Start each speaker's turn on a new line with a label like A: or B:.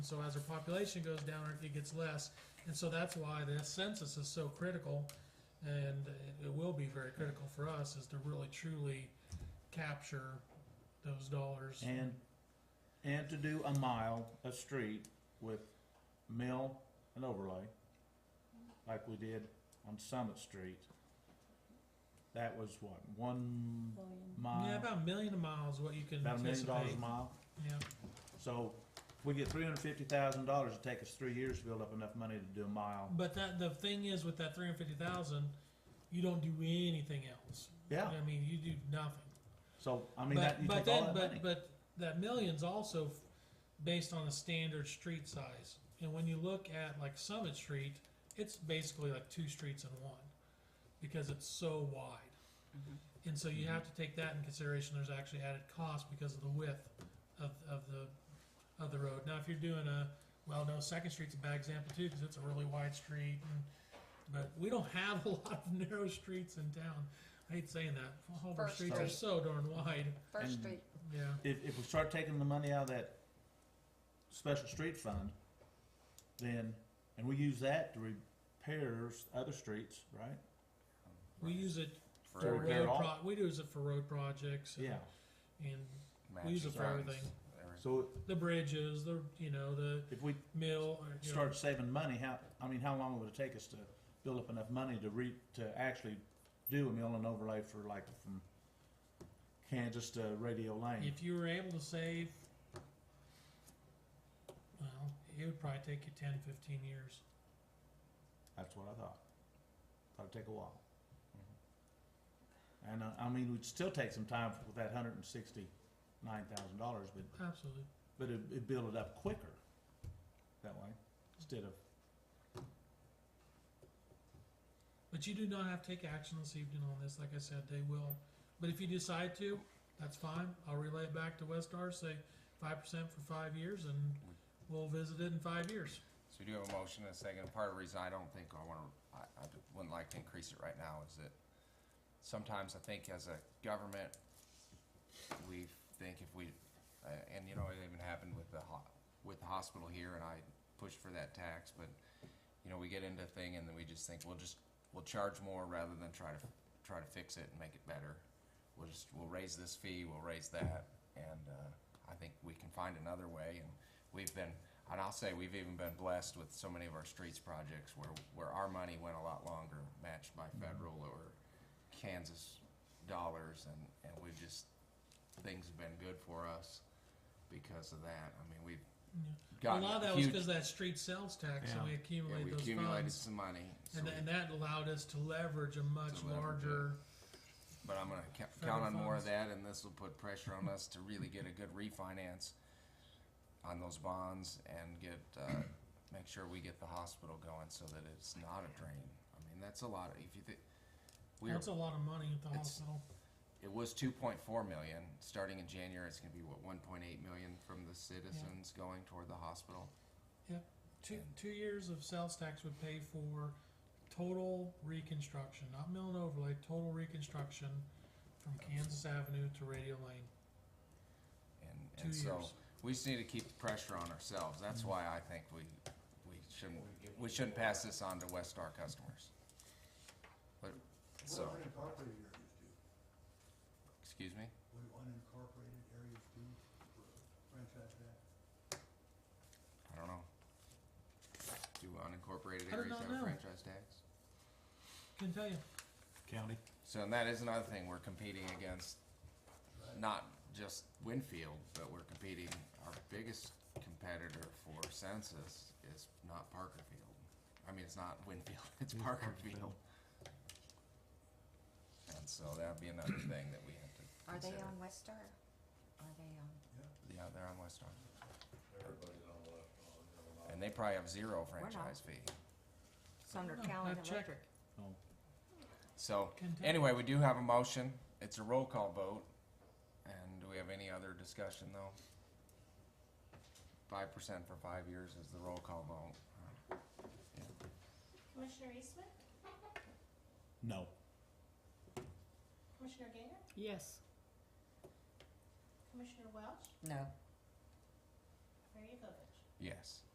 A: So as our population goes down, our- it gets less, and so that's why the census is so critical, and it- it will be very critical for us, is to really truly capture those dollars.
B: And, and to do a mile a street with mill and overlay, like we did on Summit Street. That was what, one
A: Yeah,
B: mile,
A: about a million miles, what you can
B: uh, about a million dollars
A: anticipate.
B: a mile?
A: Yeah,
B: So, if we get three hundred fifty thousand dollars, it'd take us three years to build up enough money to do a mile.
A: but that, the thing is with that three hundred fifty thousand, you don't do anything else.
B: Yeah,
A: I mean, you do nothing.
B: so, I mean,
A: but,
B: that, you
A: but
B: take all
A: then,
B: that money.
A: but, but that million's also f- based on a standard street size. And when you look at like Summit Street, it's basically like two streets in one because it's so wide. And so
B: Mm-hmm.
A: you have to take that in consideration. There's actually added cost because of the width of, of the of the road. Now, if you're doing a well, no, Second Street's a bad example too because it's a really wide street. And, but we don't have a lot of narrow streets in town. I hate saying that. All of our
C: First
A: streets are
B: Street.
A: so darn wide.
C: First
B: And-
C: Street,
A: Yeah.
B: if, if we start taking the money out of that special street fund, then, and we use that to repair s- other streets, right?
A: We use it
B: To
A: for
D: For
B: repair
A: road
B: it all?
A: pro- we use it for road projects. and-
B: Yeah,
A: And we use
D: matches
A: it for
D: arms,
A: everything.
D: everything.
B: so
A: The bridges, the, you know, the
B: if we
A: mill. or, you know,
B: start saving money, how, I mean, how long would it take us to build up enough money to re, to actually do a mill and overlay for like from Kansas to Radio Lane?
A: If you were able to save, well, it would probably take you 10, 15 years.
B: That's what I thought. Thought it'd take a while. And, uh, I mean, we'd still take some time with that hundred and sixty-nine thousand dollars, but
A: Absolutely.
B: But it, it build it up quicker that way, instead of,
A: But you do not have to take action this evening on this. Like I said, they will. But if you decide to, that's fine. I'll relay it back to Westar, say 5% for five years, and
B: Mm.
A: we'll visit it in five years.
D: So we do have a motion and a second. Part of the reason I don't think I wanna, I, I wouldn't like to increase it right now is that sometimes I think as a government, we think if we, uh, and you know, it even happened with the ho- with the hospital here and I pushed for that tax, but you know, we get into a thing and then we just think, we'll just, we'll charge more rather than try to, try to fix it and make it better. We'll just, we'll raise this fee, we'll raise that, and, uh, I think we can find another way, and we've been, and I'll say, we've even been blessed with so many of our streets projects where, where our money went a lot longer, matched by
A: Mm-hmm.
D: federal or Kansas dollars, and, and we've just, things have been good for us because of that, I mean, we've
A: Yeah.
D: gotten
A: a
D: huge.
A: lot of that was because of that street sales tax, and we
B: Yeah.
D: Yeah,
A: accumulated
D: we
A: those
D: accumulated
A: funds,
D: some money. so
A: and,
D: we-
A: tha- and that allowed us to leverage a much
D: To leverage it.
A: larger.
D: But I'm gonna ca-
A: Federal
D: count on more of
A: funds.
D: that, and this will put pressure on us to really get a good refinance on those bonds and get, uh, make sure we get the hospital going so that it's not a drain. I mean, that's a lot, of- if you think, we're,
A: That's a lot of money at the
D: It's-
A: hospital.
D: it was two point four million, starting in January, it's gonna be, what, one point eight million from the citizens going toward the hospital?
A: Two two years of sales tax would pay for total reconstruction, not mill and overlay, total reconstruction from Kansas Avenue to Radio Lane.
D: And,
A: Two
D: and so,
A: years. Mm-hmm.
D: we just need to keep the pressure on ourselves, that's why I think we, we shouldn't, we shouldn't pass this on to Westar customers. But, so.
E: unincorporated areas do,
D: Excuse me?
E: what do unincorporated areas do for franchise that?
D: I don't know. Do unincorporated
A: I do
D: areas
A: not
D: have a
A: know.
D: franchise tax?
A: Can tell you,
B: county.
D: So, and that is another thing, we're competing against not just Winfield, but we're competing, our biggest competitor for census is not Parkerfield. I mean, it's not Winfield, it's Parkerfield. And so that'd be another thing that we have to
C: are they
D: consider.
C: on West Star? Are they on?
D: Yeah, they're on West Arm. And they probably have zero
C: not.
D: franchise fee.
C: It's under
A: don't know.
C: Callan
A: I've checked.
C: Electric.
B: Oh,
D: So,
A: Can do.
D: anyway, we do have a motion. It's a roll call vote. And do we have any other discussion, though? Five percent for five years is the roll call vote.
F: Commissioner Eastman?
B: no.
F: Commissioner Gainer?
C: Yes.
F: Commissioner Welch?
C: No.
F: Mayor Yovich?
D: Yes.